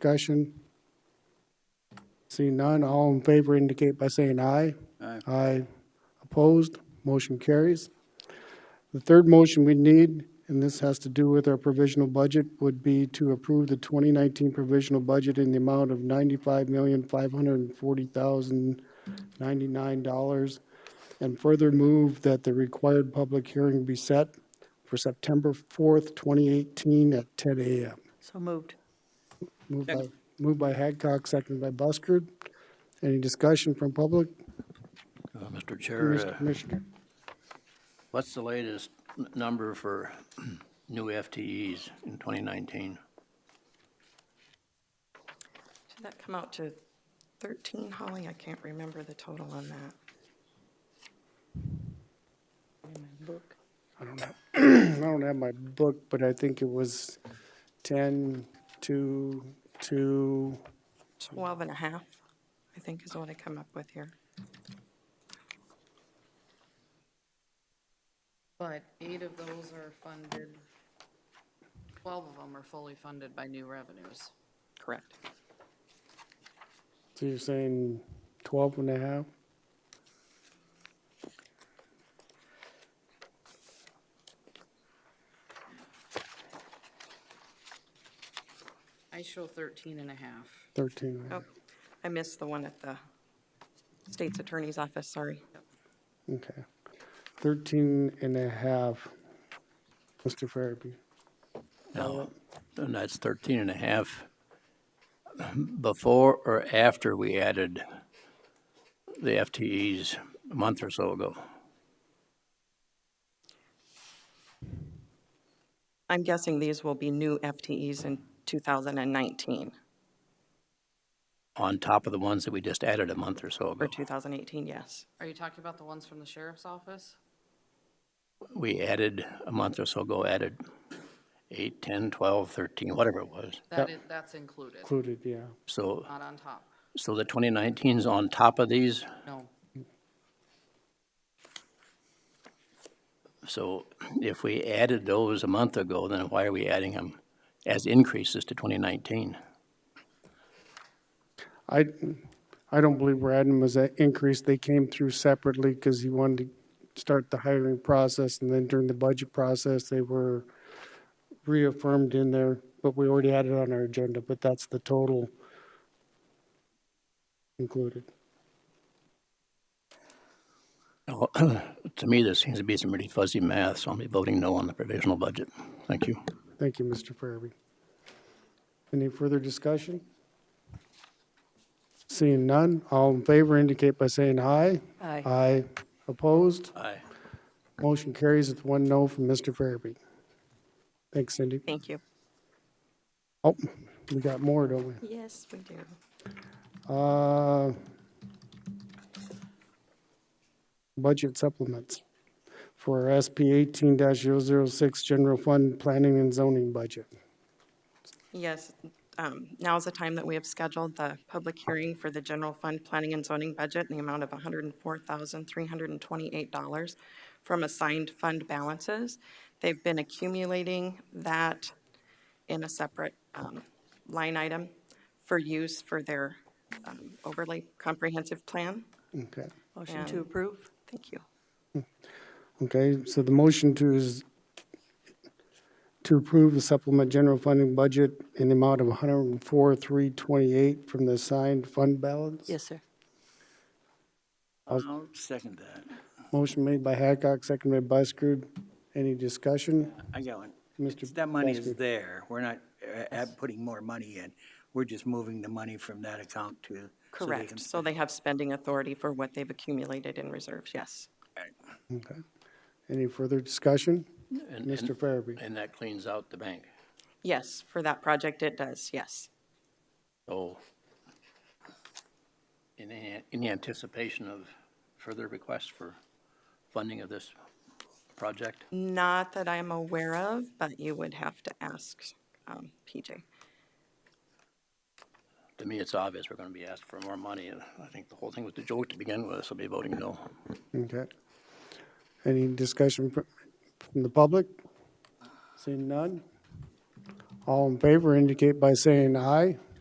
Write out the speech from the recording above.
Discussion? Seeing none, all in favor indicate by saying aye. Aye. Aye. Opposed, motion carries. The third motion we need, and this has to do with our provisional budget, would be to approve the 2019 provisional budget in the amount of $95,540,099 and further move that the required public hearing be set for September 4th, 2018 at 10 a.m. So moved. Moved by, moved by Hadcock, seconded by Buschard. Any discussion from public? Uh, Mr. Chair, Mr. uh, Commissioner? what's the latest n- number for new FTEs in 2019? Did that come out to 13, Holly? I can't remember the total on that. I don't have, I don't have my book, but I think it was 10, 2, 2, 12 and a half, I think is what I come up with here. But eight of those are funded, 12 of them are fully funded by new revenues. Correct. so you're saying 12 and a half? I show 13 and a half. 13 and a half? Oh, I missed the one at the state's attorney's office, sorry. Okay. 13 and a half. Mr. Farabee? Now, Uh, and that's 13 and a half before or after we added the FTEs a month or so ago? I'm guessing these will be new FTEs in 2019 On top of the ones that we just added a month or so or ago? 2018, yes. Are you talking about the ones from the sheriff's office? We added, a month or so ago, added 8, 10, 12, 13, whatever it was. That is, that's included, Included, yeah. So, not on top. so the 2019's on top of these? No, So if we added those a month ago, then why are we adding them as increases to 2019? I, I don't believe we're adding them as an increase. They came through separately because he wanted to start the hiring process and then during the budget process, they were reaffirmed in there, but we already had it on our agenda, but that's the total included. Now, To me, there seems to be some really fuzzy math, so I'll be voting no on the provisional budget. Thank you. Thank you, Mr. Farabee. Any further discussion? Seeing none, all in favor indicate by saying aye. Aye. Aye. Opposed? Aye. Motion carries with one no from Mr. Farabee. Thanks, Cindy. Thank you. Oh, we got more, don't we? Yes, we do. Uh, Budget supplements for SP eighteen 6 general fund planning and zoning budget. Yes, um, now is the time that we have scheduled the public hearing for the general fund planning and zoning budget in the amount of $104,328 from assigned fund balances. They've been accumulating that in a separate um, line item for use for their um, overlay comprehensive plan. Okay, Motion to approve? Thank you. okay, so the motion to is to approve the supplement general funding budget in the amount of one hundred and four, three twenty-eight from the assigned fund balance? Yes, sir. I'll second that. Motion made by Hadcock, seconded by Buschard. Any discussion? I got one. Mr. It's- That money is Busker. there. We're not uh, add- putting more money in. We're just moving the money from that account to. so they can Correct. So spend they have spending authority for what they've accumulated in reserves, yes. Okay. Any further discussion? Mr. Farabee? And that cleans out the bank. Yes, for that project it does, yes. So in, a- in anticipation of further requests for funding of this project? Not that I'm aware of, but you would have to ask um, PJ. To me, it's obvious we're going to be asked for more money. and I think the whole thing was a joke to begin with, so I'll be voting no. Okay. Any discussion fr- from the public? Seeing none? All in favor indicate by saying aye.